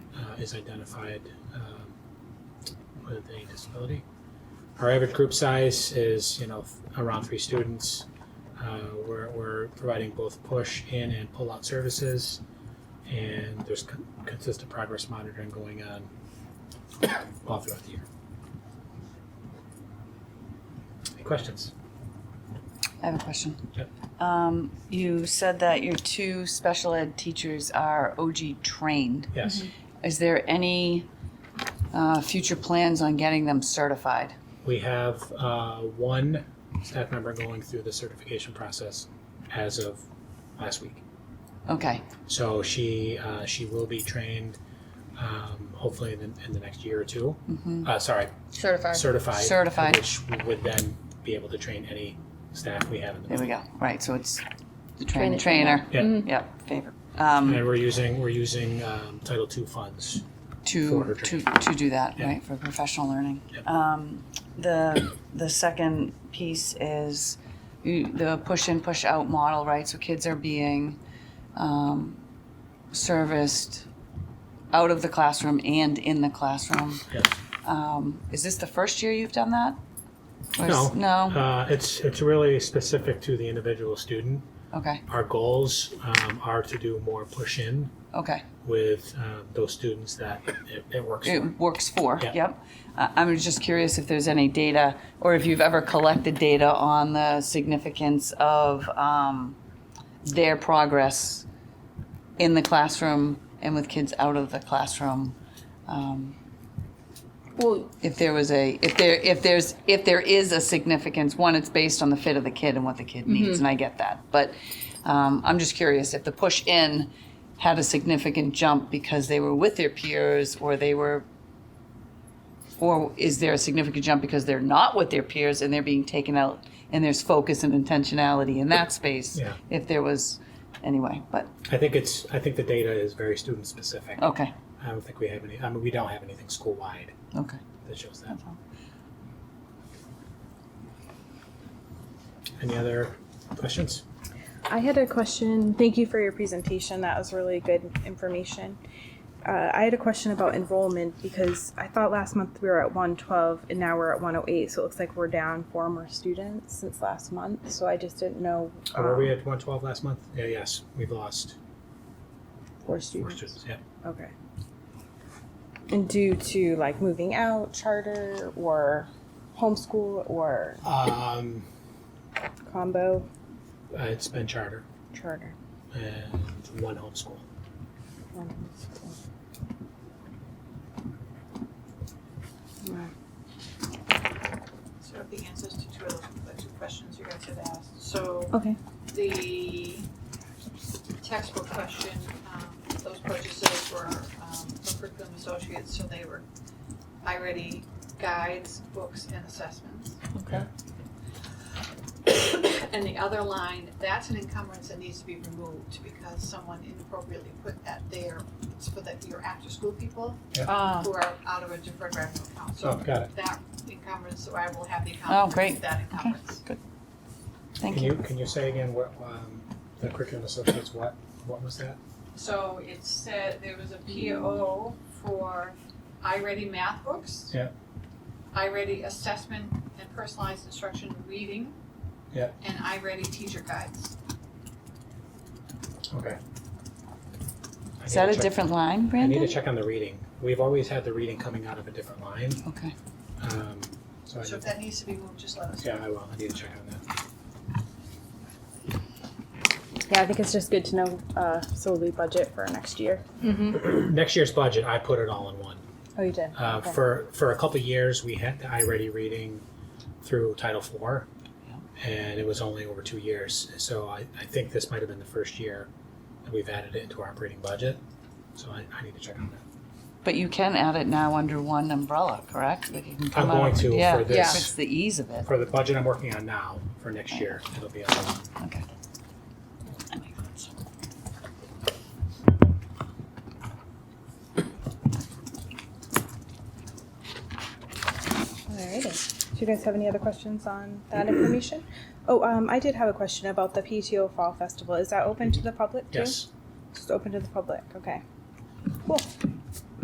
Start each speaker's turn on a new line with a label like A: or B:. A: uh, is identified um, with a disability. Our average group size is, you know, around three students. Uh, we're, we're providing both push in and pull out services, and there's con- consistent progress monitoring going on all throughout the year. Any questions?
B: I have a question.
A: Yep.
B: Um, you said that your two special ed teachers are OG trained.
A: Yes,
B: Is there any uh, future plans on getting them certified?
A: we have uh, one staff member going through the certification process as of last week.
B: Okay,
A: So she uh, she will be trained, um, hopefully in the, in the next year or 2 Uh, sorry,
C: Certified.
A: certified.
B: Mm-hmm. Certified.
A: Which would then be able to train any staff we have in the.
B: there we go. Right, so it's the train the
C: Train the
B: trainer.
A: Yeah,
B: Yep, favor.
A: and
B: Um,
A: we're using we're using um, Title II funds.
B: to,
A: forward
B: to,
A: training.
B: to do that,
A: Yeah.
B: right, for professional learning.
A: Yep.
B: Um, the, the second piece is you- the push in, push out model, right? So kids are being um, serviced out of the classroom and in the classroom.
A: Yes.
B: Um, is this the first year you've done that? Or
A: No.
B: is- No?
A: Uh, it's it's really specific to the individual student.
B: Okay,
A: Our goals um, are to do more push in
B: okay.
A: with um, those students that it, it works.
B: it
A: for.
B: works for,
A: Yeah.
B: yep. Uh, I'm just curious if there's any data, or if you've ever collected data on the significance of um, their progress in the classroom and with kids out of the classroom. Um,
C: Well,
B: If there was a, if there, if there's, if there is a significance, one, it's based on the fit of the kid and what the kid needs, and I get that. But um, I'm just curious if the push in had a significant jump because they were with their peers or they were, or is there a significant jump because they're not with their peers and they're being taken out and there's focus and intentionality in that space?
A: Yeah.
B: If there was, anyway, but,
A: I think it's I think the data is very student specific.
B: okay,
A: I don't think we have any. I mean, we don't have anything school wide
B: okay.
A: that shows that.
B: that's all.
A: Any other questions?
D: I had a question. Thank you for your presentation. That was really good information. Uh, I had a question about enrollment because I thought last month we were at 112 and now we're at 108. So it looks like we're down four more students since last month. So I just didn't know.
A: Oh, were we
D: um,
A: at 112 last month? Yeah, yes, we've lost
D: four
A: four
D: students?
A: students. Yeah.
D: Okay. And due to like moving out, charter, or homeschool, or
A: Um,
D: combo
A: uh, it's been charter
D: charter.
A: and one homeschool.
D: One homeschool. Right.
E: Sort of the answers to two of the two questions you guys had asked. So
D: Okay.
E: the textbook question, um, those purchases were um, for curriculum associates, so they were iReady guides, books, and assessments.
A: Okay.
E: And the other line, that's an encumbrance that needs to be removed because someone inappropriately put that there. It's for the, your after-school people
B: Ah,
E: who are out of a deferred revenue account.
A: Oh,
E: So
A: got it.
E: that encumbrance, so I will have the
B: Oh,
E: account.
B: great.
E: That encumbrance.
B: Thank
A: Can
B: you.
A: you can you say again what um, the curriculum associates what what was that?
E: So it said there was a PO for iReady math books.
A: Yeah.
E: iReady assessment and personalized instruction reading.
A: Yeah.
E: And iReady teacher guides.
A: Okay. I
B: Is
A: need
B: that
A: to
B: a
A: check-
B: different line,
A: I need
B: Brandon?
A: to check on the reading. We've always had the reading coming out of a different line.
B: Okay,
A: Um, so I
E: So if
A: need,
E: that needs to be moved, just let us know.
A: yeah, I will. I need to check on that.
D: Yeah, I think it's just good to know uh, so we budget for next year.
A: Next year's budget, I put it all in one.
D: Oh, you did.
A: Uh,
D: Okay.
A: For for a couple of years, we had the iReady reading through Title IV, and it was only over two years. So I, I think this might have been the first year that we've added it into our operating budget. So I, I need to check on that.
B: but you can add it now under one umbrella, correct? Like you can come
A: I'm
B: out
A: going
B: of-
A: to
B: yeah,
A: for
B: yeah.
A: this.
B: It's the ease of it.
A: For the budget I'm working on now for next year, it'll be on.
B: Okay. That makes sense.
D: Alrighty. Do you guys have any other questions on that information? Oh, um, I did have a question about the PTO Fall Festival. Is that open to the public too?
A: Yes.
D: Just open to the public. Okay. Cool.